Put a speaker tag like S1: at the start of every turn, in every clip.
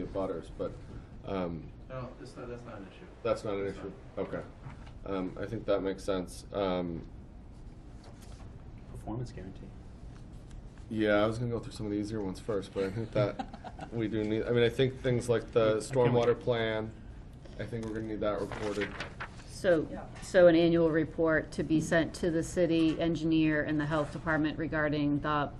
S1: the butters, but um,
S2: No, it's not, that's not an issue.
S1: that's not an
S2: That's
S1: issue. Okay. Um, I think that makes sense. Um,
S3: Performance guarantee.
S1: yeah, I was gonna go through some of the easier ones first, but I think that we do need, I mean, I think things like the stormwater plan, I think we're gonna need that reported.
S4: So, so an annual report to be sent to the city engineer and the health department regarding the,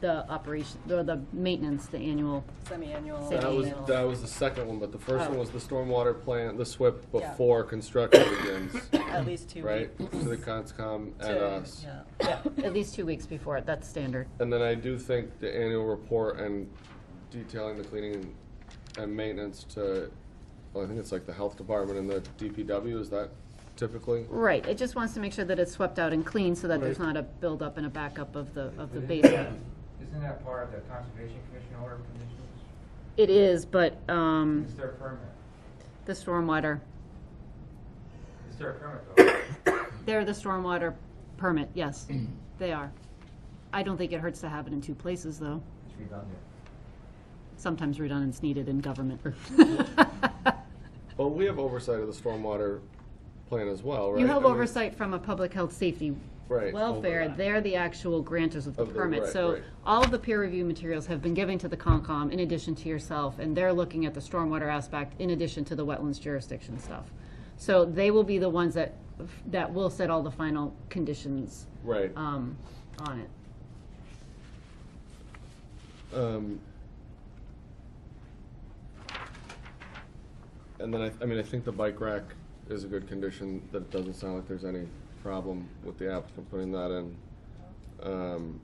S4: the operation, or the maintenance, the annual.
S5: Semi-annual.
S4: That
S1: That was,
S4: Annual.
S1: that was the second one, but the first one
S4: Oh.
S1: was the stormwater plan, the SWIP
S5: Yeah.
S1: before construction begins,
S5: At least two
S1: right?
S5: weeks.
S1: To the conscom and
S5: to-
S1: us.
S5: yeah.
S4: At least two weeks before, it. that's standard.
S1: And then I do think the annual report and detailing the cleaning and maintenance to, well, I think it's like the health department and the DPW, is that typically?
S4: Right, it just wants to make sure that it's swept out and clean so that there's
S1: Right.
S4: not a buildup and a backup of the, of the
S6: But
S4: basement.
S6: isn't that- Isn't that part of the Conservation Commission order of conditions?
S4: It is, but, um,
S6: Is there a permit?
S4: the stormwater,
S6: Is there a permit though?
S4: they're the stormwater permit, yes, they are. I don't think it hurts to have it in two places, though.
S6: It's redundant.
S4: Sometimes redundancy needed in government.
S1: But we have oversight of the stormwater plan as well, right?
S4: You
S1: I
S4: have
S1: mean,
S4: oversight from a public health safety
S1: Right.
S4: welfare, they're the actual granters of the
S1: Of the-
S4: permit.
S1: right,
S4: So
S1: right.
S4: all of the peer review materials have been given to the Concom in addition to yourself, and they're looking at the stormwater aspect in addition to the wetlands jurisdiction stuff. So they will be the ones that, that will set all the final conditions
S1: Right.
S4: um, on it.
S1: Um, And then I, I mean, I think the bike rack is a good condition, that it doesn't sound like there's any problem with the applicant putting that in. Um,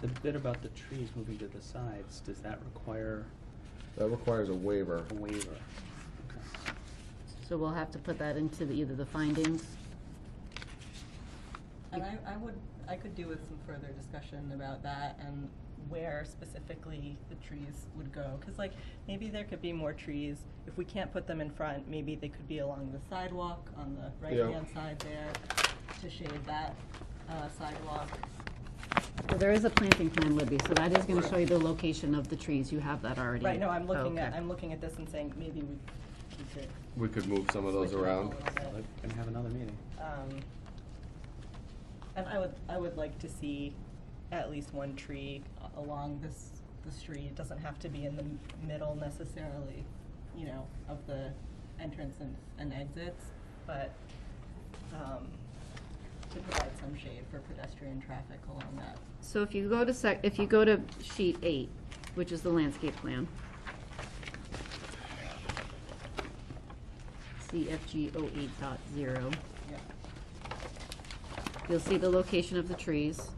S3: The bit about the trees moving to the sides, does that require
S1: That requires a waiver.
S3: a waiver?
S4: So we'll have to put that into the, either the findings.
S5: And I, I would, I could do with some further discussion about that and where specifically the trees would go. Cause like, maybe there could be more trees. If we can't put them in front, maybe they could be along the sidewalk on the
S1: Yeah.
S5: right-hand side there to shade that uh, sidewalk.
S4: So there is a planting plan, Libby, so that is gonna show you the location of the trees, you have that already.
S5: Right, no, I'm looking at,
S4: Oh, Okay.
S5: I'm looking at this and saying, maybe we we could.
S1: We could move some of those
S5: switch it up a
S1: around.
S5: little
S3: Well,
S5: bit.
S3: They're gonna have another meeting.
S5: Um, and I would, I would like to see at least one tree a- along this, the street. It doesn't have to be in the m- middle necessarily, you know, of the entrance and, and exits, but, um, to provide some shade for pedestrian traffic along that.
S4: So if you go to sec, if you go to sheet eight, which is the landscape plan. CFG 08.0 eight dot zero,
S5: Yep.
S4: you'll see the location of the trees.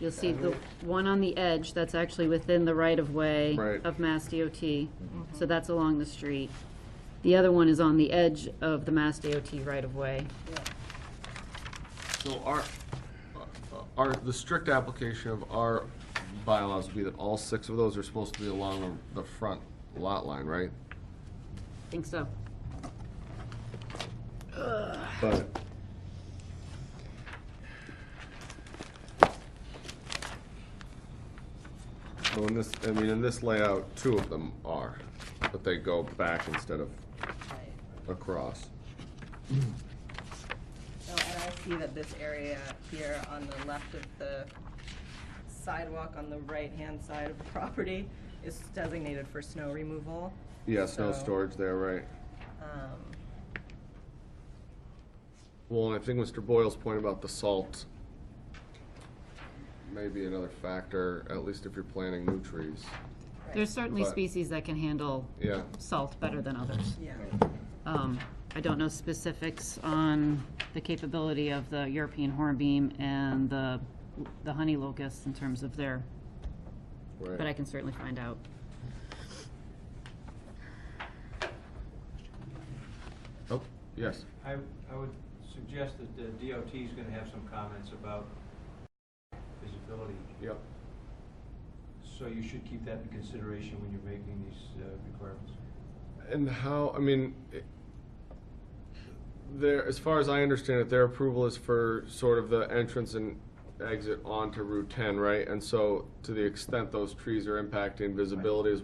S4: You'll see the one on the edge, that's actually within the right of way
S1: Right.
S4: of Mass DOT, so that's along the street. The other one is on the edge of the Mass DOT right of way.
S5: Yep.
S1: So our, uh, our, the strict application of our bylaws would be that all six of those are supposed to be along the the front lot line, right?
S4: Think so.
S1: But. Well, in this, I mean, in this layout, two of them are, but they go back instead of
S5: Right.
S1: across.
S5: Oh, and I see that this area here on the left of the sidewalk on the right-hand side of the property is designated for snow removal.
S1: Yeah, snow
S5: So,
S1: storage there, right?
S5: Um,
S1: Well, I think Mr. Boyle's point about the salt may be another factor, at least if you're planting new trees.
S4: There's certainly
S1: But-
S4: species that can handle
S1: Yeah,
S4: salt better than others.
S5: yeah,
S4: Um, I don't know specifics on the capability of the European hornbeam and the, the honey locust in terms of their, but I
S1: right.
S4: can certainly find out.
S1: Oh, yes.
S7: I, I would suggest that the DOT is gonna have some comments about visibility,
S1: Yep.
S7: so you should keep that in consideration when you're making these uh, requirements.
S1: And how, I mean, it- there, as far as I understand it, their approval is for sort of the entrance and exit onto Route 10, right? And so to the extent those trees are impacting visibility as